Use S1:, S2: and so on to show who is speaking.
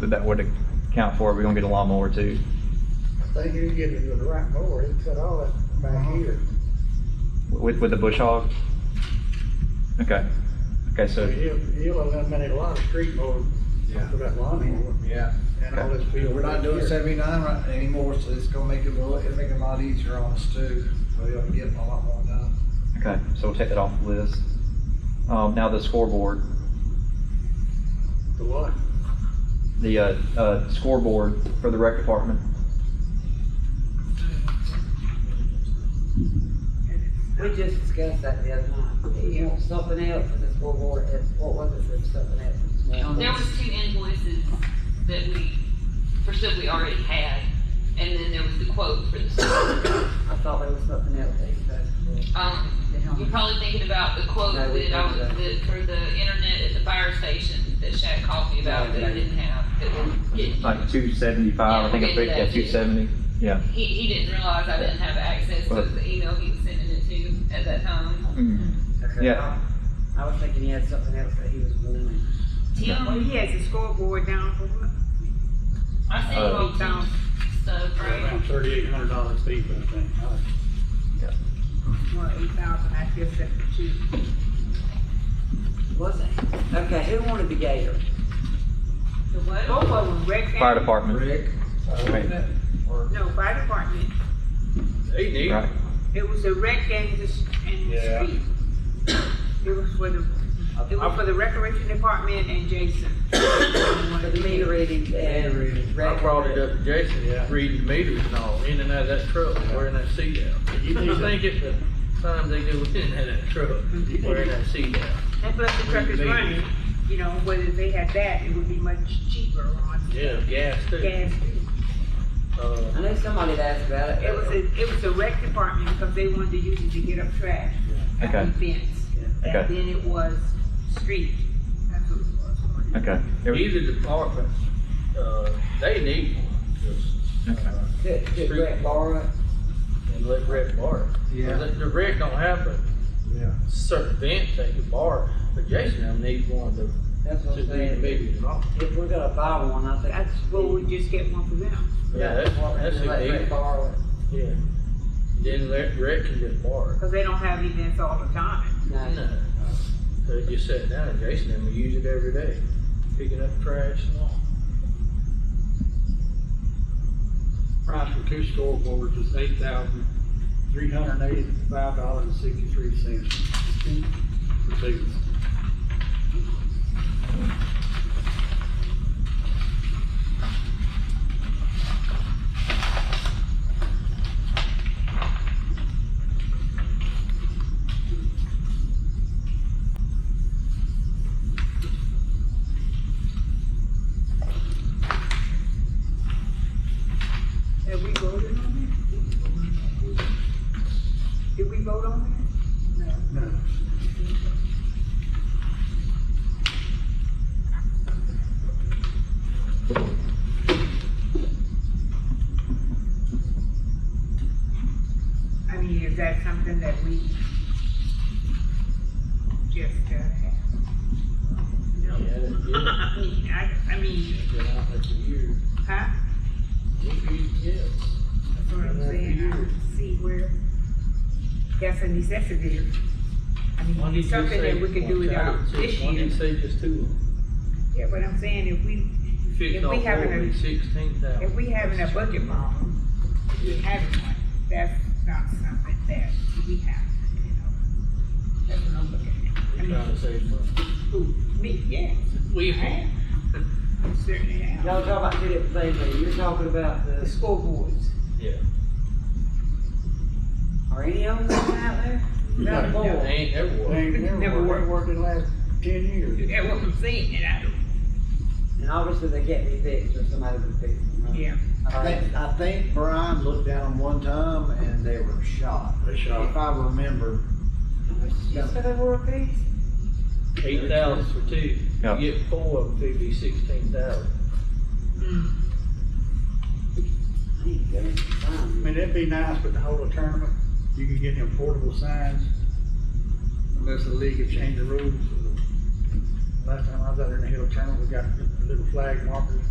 S1: but that would account for it. We're gonna get a lawnmower too.
S2: They do get it with the right mower, he cut all that
S3: Uh-huh.
S2: back here.
S1: With, with the bush hog? Okay. Okay,
S2: So
S1: so,
S2: he'll, he'll eliminate a lot of street mowers
S4: Yeah.
S2: for that lawn mower
S4: Yeah,
S2: and all this
S4: But
S2: field.
S4: we're not doing
S2: here.
S4: seventy-nine right anymore, so it's gonna make it a little, it'll make it a lot easier on us too, so we will get a lot more done.
S1: okay, so we'll take that off the list. Um, now the scoreboard,
S2: The what?
S1: the, uh, uh, scoreboard for the rec department.
S5: We just discussed that the other night. He wants something else for this scoreboard, it's, what was it for something else?
S6: There was two invoices that we, for stuff we already had, and then there was the quote for the stuff.
S5: I thought there was something else that he said.
S6: Um, you're probably thinking about the quote that I was, that for the internet at the fire station that Shaq called me about that I didn't have, that we're getting.
S1: Like two seventy-five, I think, I picked, yeah, two seventy, yeah.
S6: He, he didn't realize I didn't have access to the email he was sending it to at that time.
S1: Mm.
S5: Okay,
S1: Yeah.
S5: I I was thinking he had something else that he was wanting.
S7: Well,
S6: Tim,
S7: he has a scoreboard down for what?
S6: I sent you all Tim's stuff, right?
S2: Around thirty-eight hundred dollars deep, I think.
S7: Well, eight thousand, I guess that's the cheap.
S5: Was it? Okay, who wanted the gator?
S6: The what?
S7: Both of them, rec. and-
S1: Fire department,
S4: Rick, uh, wasn't it? Or-
S7: No, fire department.
S4: They need.
S1: right,
S7: It was a rec and the, s- and the
S4: Yeah.
S7: street. It was for the, it was for the recreation department and Jason.
S5: For the meter readings and.
S4: Meter readings.
S3: I
S5: Rec-
S3: brought it up to Jason,
S2: Yeah.
S3: reading meters and all, in and out of that truck, wearing that seat out.
S2: You
S3: You
S2: need to-
S3: think at the time they go in and out of that truck, wearing that seat out.
S7: And plus the truck is running, you know, whether they had that, it would be much cheaper on
S3: Yeah, gas too.
S7: gas.
S3: Uh,
S5: I know somebody had asked about it.
S7: It was a, it was a rec department because they wanted to use it to get up trash. at
S1: Okay.
S7: Events.
S1: Okay.
S7: And then it was street. That's what it was.
S1: okay. Every-
S3: Either department, uh, they need one, just,
S1: Okay.
S3: uh,
S5: Could, could Brett borrow it?
S3: and let rec borrow. it. 'Cause
S4: Yeah.
S3: The the rec don't have a
S4: Yeah.
S3: certain event they can borrow, but Jason them needs one to,
S5: That's what
S3: to
S5: I'm
S3: read
S5: saying.
S3: meters and all.
S5: If we're gonna buy one, I think.
S7: That's, well, we just get one for them.
S3: Yeah, that's, that's
S5: Department,
S3: who
S5: let
S3: needs
S5: Brett
S3: it.
S5: borrow it.
S3: Yeah. Then let rec can just borrow. it.
S7: Because they don't have events all the time.
S5: No.
S3: No. So just sit down and Jason and we use it every day, picking up trash and all.
S2: Price for two scoreboards is eight thousand, three hundred and eighty-five dollars and sixty-three cents. For season.
S7: Have we voted on it? Did we vote on it? No.
S2: No.
S7: I mean, is that something that we just, uh, have? No.
S3: Yeah, that- yeah.
S7: I mean, I, I mean,
S3: Been out there for years.
S7: huh?
S3: Yeah.
S7: That's what I'm saying, I don't see where that's a necessity. I
S3: One
S7: mean,
S3: you
S7: it's
S3: just
S7: something
S3: say
S7: that we could
S3: one
S7: do without
S3: child,
S7: this
S3: One
S7: year.
S3: you say just two.
S7: Yeah, but I'm saying if we,
S3: Fifteen
S7: If we having a-
S3: forward, sixteen thousand.
S7: if we having a budget problem, we having one, that's not something that we have, you know. That's what I'm looking at. I
S3: We're trying
S7: mean,
S3: to save money.
S7: who, me, yeah,
S3: We,
S7: I am. I Certainly am.
S5: Y'all talking about two different things, there. you're talking about
S7: The
S5: the,
S7: school boards.
S3: yeah.
S5: are any of them going out there?
S2: No.
S5: Not
S3: They
S5: more.
S3: ain't never
S2: They
S3: worked.
S2: ain't never
S7: Never
S2: worked, they worked in the last ten years.
S7: That's what I'm saying, and I don't,
S5: And obviously they can't be fixed or somebody would fix them, right? Uh,
S7: yeah.
S4: I think, I think Brian looked down them one time and they were shot,
S2: They
S4: if I remember.
S5: You said they were a piece?
S3: Eight thousand for two. You
S1: Yeah.
S3: get four of them, it'd be sixteen thousand.
S7: Mm.
S5: I ain't gonna find
S2: I
S5: them.
S2: mean, it'd be nice, but the whole tournament, you could get them portable signs unless the league had changed the rules. Last time I was out there in the hill tournament, we got little flag markers.